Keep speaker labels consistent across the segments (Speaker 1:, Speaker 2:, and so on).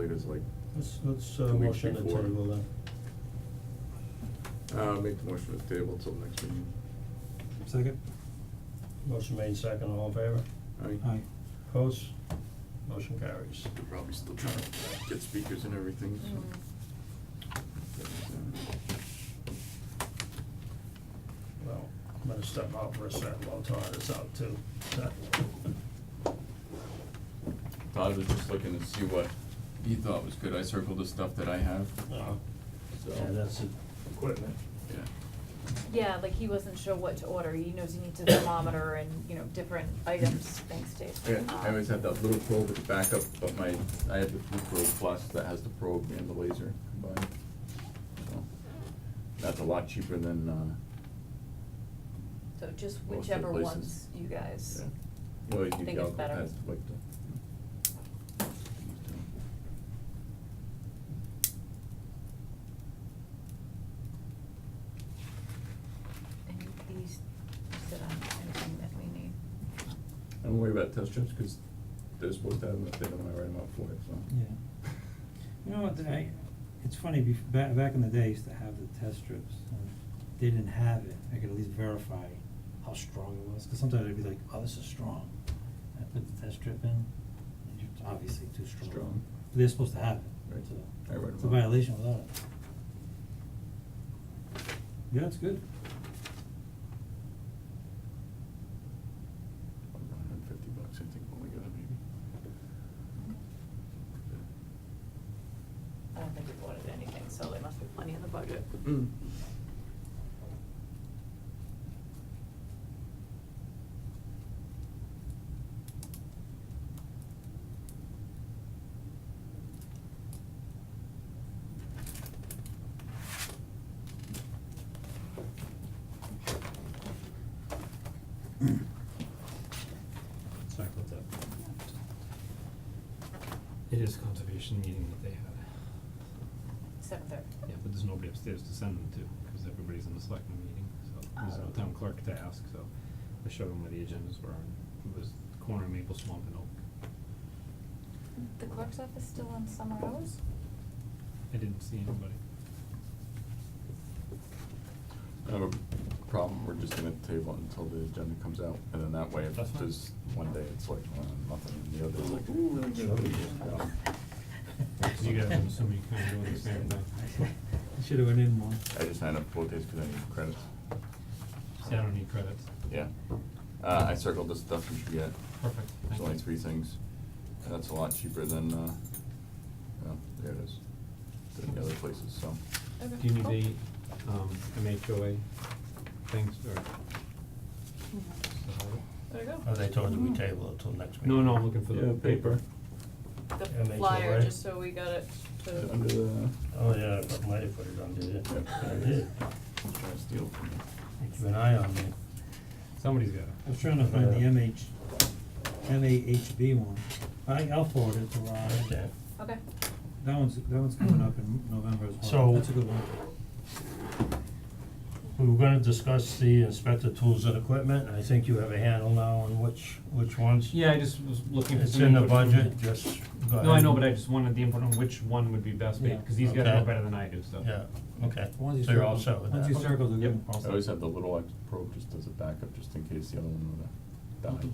Speaker 1: it's like,
Speaker 2: Let's, let's, uh,
Speaker 1: Two weeks
Speaker 2: motion to
Speaker 1: before.
Speaker 2: table then.
Speaker 1: uh, make the motion to table till next meeting.
Speaker 3: Second?
Speaker 2: Motion made second, all in favor?
Speaker 1: Aye.
Speaker 3: Aye.
Speaker 2: Opposed? Motion carries.
Speaker 1: They're probably still trying to get speakers and everything,
Speaker 4: Mm.
Speaker 1: so.
Speaker 2: Well, I'm gonna step out for a second while Todd is out too.
Speaker 5: Todd was just looking to see what he thought was good, I circled the stuff that I have,
Speaker 2: No.
Speaker 5: so,
Speaker 2: Yeah, that's it. Equipment.
Speaker 5: yeah.
Speaker 4: Yeah, like he wasn't sure what to order, he knows he needs a thermometer and, you know, different items, thanks Dave.
Speaker 5: Yeah, I always
Speaker 4: Um,
Speaker 5: have that little probe at the backup, but my, I have the Blue Probe Plus that has the probe and the laser combined. So, that's a lot cheaper than, uh,
Speaker 4: Um, So just
Speaker 5: Most of the
Speaker 4: whichever
Speaker 5: places.
Speaker 4: ones you guys.
Speaker 5: yeah. You always need
Speaker 4: Think
Speaker 5: the
Speaker 4: it's
Speaker 5: alcohol
Speaker 4: better.
Speaker 5: test, like the.
Speaker 4: And you- these sit on anything that we need.
Speaker 5: I don't worry about test strips, cause they're supposed to have them, if they don't, I write them out for it, so.
Speaker 3: Yeah. You know what, I, it's funny, bef- back, back in the day, I used to have the test strips, and if they didn't have it, I could at least verify how strong it was, cause sometimes I'd be like, oh, this is strong. I put the test strip in, and it's obviously too strong.
Speaker 5: Strong.
Speaker 3: But They're supposed to have it,
Speaker 5: Right.
Speaker 3: it's a,
Speaker 5: I read
Speaker 3: it's a
Speaker 5: them all.
Speaker 3: violation without it. Yeah, it's good.
Speaker 1: Hundred and fifty bucks, I think, when we got it, maybe.
Speaker 4: I don't think we've ordered anything, so there must be plenty in the budget.
Speaker 5: Mm.
Speaker 1: Mm.
Speaker 6: Sorry about that. It is conservation meeting that they had.
Speaker 4: Seven thirty.
Speaker 6: Yeah, but there's nobody upstairs to send them to, cause everybody's in the selectmen meeting, so there's no
Speaker 4: Oh.
Speaker 6: town clerk to ask, so I showed them where the agendas were, and it was corner of Maple Swamp and Oak.
Speaker 4: The clerk's office still on summer hours?
Speaker 6: I didn't see anybody.
Speaker 5: I have a problem, we're just gonna table it until the agenda comes out, and then that way, if
Speaker 6: That's fine.
Speaker 5: there's one day, it's like, uh, nothing, and the other, is like,
Speaker 1: Ooh, really good.
Speaker 5: Yeah.
Speaker 6: Cause you guys, I'm assuming you kinda doing the same thing.
Speaker 3: I should've went in more.
Speaker 5: I just signed up four days because I need credits.
Speaker 6: See, I don't need credits.
Speaker 5: Yeah, uh, I circled the stuff you should get.
Speaker 6: Perfect, thank
Speaker 5: There's
Speaker 6: you.
Speaker 5: only three things, and that's a lot cheaper than, uh, well, there it is, than the other places, so.
Speaker 4: Okay.
Speaker 6: Do you
Speaker 4: cool.
Speaker 6: need the, um, MHOA things, or?
Speaker 4: There you go. Mm-hmm.
Speaker 2: Oh, they told you we table it till next week.
Speaker 6: No, no, I'm looking for the
Speaker 5: Yeah,
Speaker 6: paper.
Speaker 4: The
Speaker 2: Yeah, make it
Speaker 4: flyer,
Speaker 2: right.
Speaker 4: just so we got it to.
Speaker 5: Is it Under the,
Speaker 2: Oh, yeah, but might have put it on, did it?
Speaker 5: Yeah.
Speaker 2: I did.
Speaker 5: I'm trying to steal from you.
Speaker 2: Keep an eye on me.
Speaker 6: Somebody's got it.
Speaker 3: I was trying to find the
Speaker 2: Yeah.
Speaker 3: MH, MAHB one. I, I'll forward it to Ron.
Speaker 2: Okay.
Speaker 4: Okay.
Speaker 3: That one's, that one's coming up in November as well.
Speaker 2: So-
Speaker 3: That's a good one.
Speaker 2: We were gonna discuss the inspector tools and equipment, and I think you have a handle now on which, which ones.
Speaker 6: Yeah, I just was looking for
Speaker 2: It's
Speaker 6: some
Speaker 2: in the
Speaker 6: input from-
Speaker 2: budget, just go ahead.
Speaker 6: No, I know, but I just wanted the input on which one would be best,
Speaker 3: Yeah.
Speaker 6: because these guys know
Speaker 2: Okay.
Speaker 6: better than I do, so.
Speaker 2: Yeah, okay,
Speaker 3: The ones you
Speaker 2: so you're all
Speaker 3: circled-
Speaker 2: set with that?
Speaker 3: Once you circle the good
Speaker 5: I always have the little X probe just as a backup, just in case the other one would have died.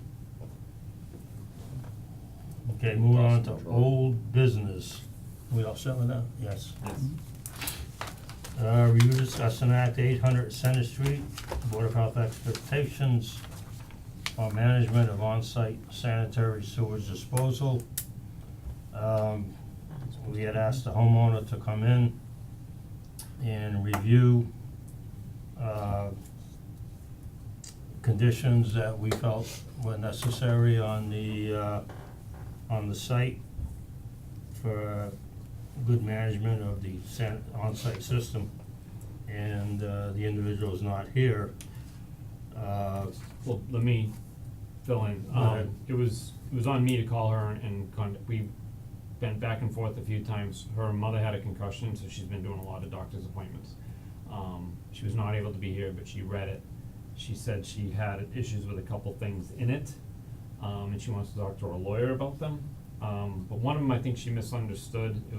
Speaker 2: Okay, moving on to
Speaker 5: Lost control.
Speaker 2: old business. We all set with that? Yes. Uh, review discuss and act eight hundred Center Street, Board of Health expectations on management of on-site sanitary sewage disposal. Um, we had asked the homeowner to come in and review, uh, conditions that we felt were necessary on the, uh, on the site for good management of the san- on-site system. And, uh, the individual is not here. Uh,
Speaker 6: Well, let me fill in,
Speaker 2: Go ahead.
Speaker 6: um, it was, it was on me to call her and con- we been back and forth a few times, her mother had a concussion, so she's been doing a lot of doctor's appointments. Um, she was not able to be here, but she read it, she said she had issues with a couple things in it, um, and she wants to talk to her lawyer about them. Um, but one of them, I think she misunderstood, it was